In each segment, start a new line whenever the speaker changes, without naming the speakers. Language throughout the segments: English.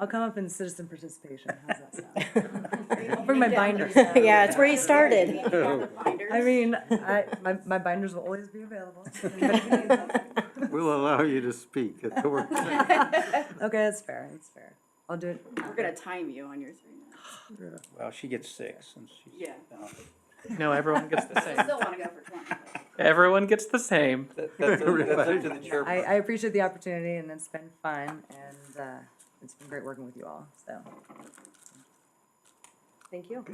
I'll come up in citizen participation, how's that sound? I'll bring my binders.
Yeah, it's where you started.
I mean, I, my, my binders will always be available. Anybody can use them.
We'll allow you to speak at the work.
Okay, that's fair, that's fair. I'll do it.
We're gonna time you on your three minutes.
Well, she gets six and she's.
Yeah.
No, everyone gets the
I
same.
still wanna go for twenty. but-
Everyone gets the same.
That- That's up that's up to the chair.
I, I appreciate the opportunity and it's been fun and, uh, it's been great working with you all, so,
Thank you.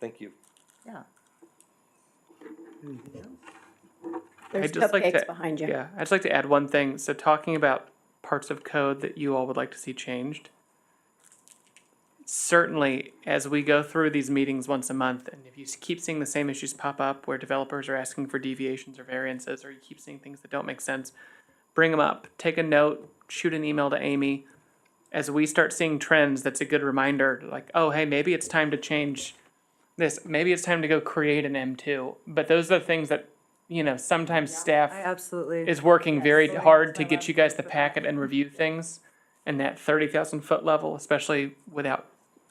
Thank you.
yeah.
There's
I'd just like to-
cupcakes behind you.
Yeah, I'd just like to add one thing. So talking about parts of code that you all would like to see changed. Certainly, as we go through these meetings once a month, and if you s- keep seeing the same issues pop up where developers are asking for deviations or variances, or you keep seeing things that don't make sense, bring them up, take a note, shoot an email to Amy. As we start seeing trends, that's a good reminder, like, oh, hey, maybe it's time to change this. Maybe it's time to go create an M2. But those are the things that, you know, sometimes staff
I absolutely.
is working very
Yes.
hard to get you guys the packet and review things and that thirty thousand foot level, especially without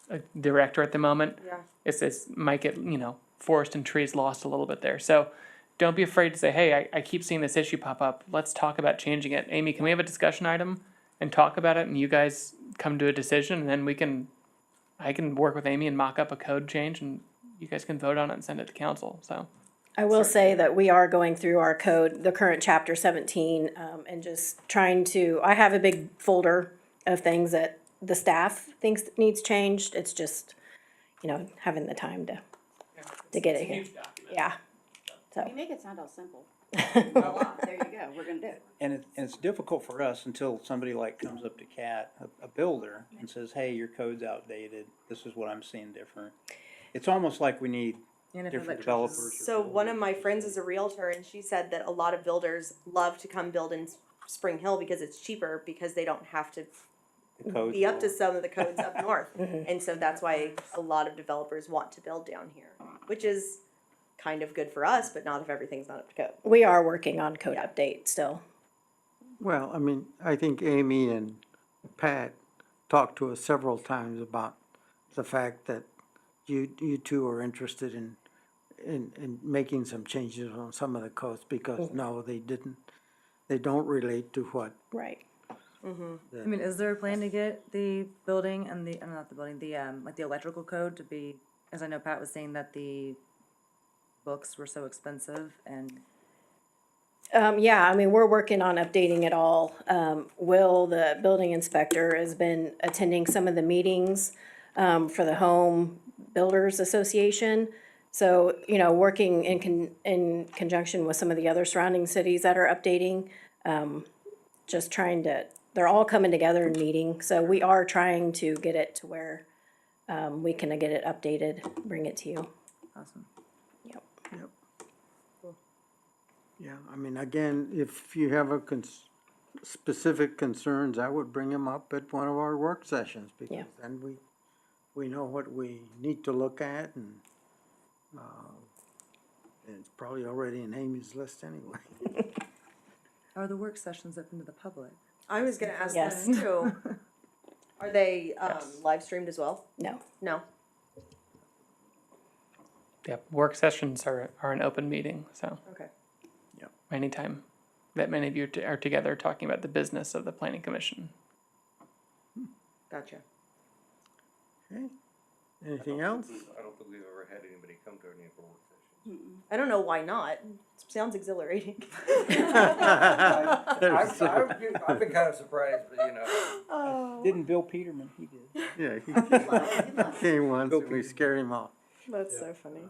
a director at the moment.
Yeah.
It's, it's, might get, you know, forest and trees lost a little bit there. So don't be afraid to say, hey, I, I keep seeing this issue pop up. Let's talk about changing it. Amy, can we have a discussion item and talk about it and you guys come to a decision and then we can, I can work with Amy and mock up a code change and you guys can vote on it and send it to council, so.
I will say that we are going through our code, the current chapter seventeen, um, and just trying to, I have a big folder of things that the staff thinks needs changed. It's just, you know, having the time to, to get it here. Yeah.
You make it sound all simple. Voila, There you go, we're gonna do it.
And it, and it's difficult for us until somebody like comes up to Cat, a, a builder, and says, hey, your code's outdated, this is what I'm seeing different. It's almost like we need
And if
different
electricians-
developers. or
So one of
builders.
my friends is a realtor and she said that a lot of builders love to come build in S- Spring Hill because it's cheaper because they don't have to
The code's
be up to
wrong.
some of the codes up north. And so that's why a lot of developers want to build down here, which is kind of good for us, but not if everything's not up to code.
We are working on code
Yeah.
update still.
Well, I mean, I think Amy and Pat talked to us several times about the fact that you, you two are interested in, in, in making some changes on some of the codes because no, they didn't, they don't relate to what
Right.
I mean, is there a plan to get the building and the, I'm not the building, the, um, like the electrical code to be, as I know Pat was saying that the books were so expensive and
Um, yeah, I mean, we're working on updating it all. Um, Will, the building inspector, has been attending some of the meetings, um, for the Home Builders Association. So, you know, working in con- in conjunction with some of the other surrounding cities that are updating, um, just trying to, they're all coming together and meeting, so we are trying to get it to where, um, we can get it updated, bring it to you.
awesome.
Yep. Yeah, I mean, again, if you have a cons- specific concerns, I would bring them up at one of our work sessions, because then we, we know what we need to look at and, uh, and it's probably already in Amy's list anyway.
Are the work sessions open to the public?
I was gonna ask
this
too. Are they, um, live streamed as well?
No,
No?
Yep, work sessions are, are an open meeting, so.
Okay.
Yep.
Anytime that many of you t- are together talking about the business of the planning commission.
Gotcha.
Okay. Anything else?
I don't think we've ever had anybody come to any of our work sessions.
I don't know why not. Sounds exhilarating.
I've, I've been, I've been kind of surprised, but you know,
Didn't Bill Peterman, he did.
Yeah, he came- came once, and we scared him off. Uh,
that's so funny.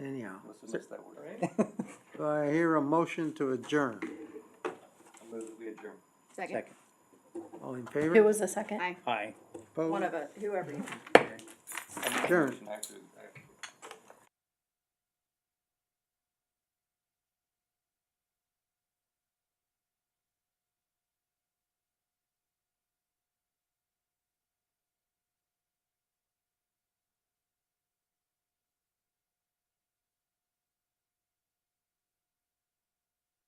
Anyhow,
must have missed that word.
do I hear a motion to adjourn?
I move that we adjourn.
Second.
Second,
All in favor?
Who was the second?
Aye.
aye.
One
Opposed?
of us, whoever you.
Adjourn.
Actually,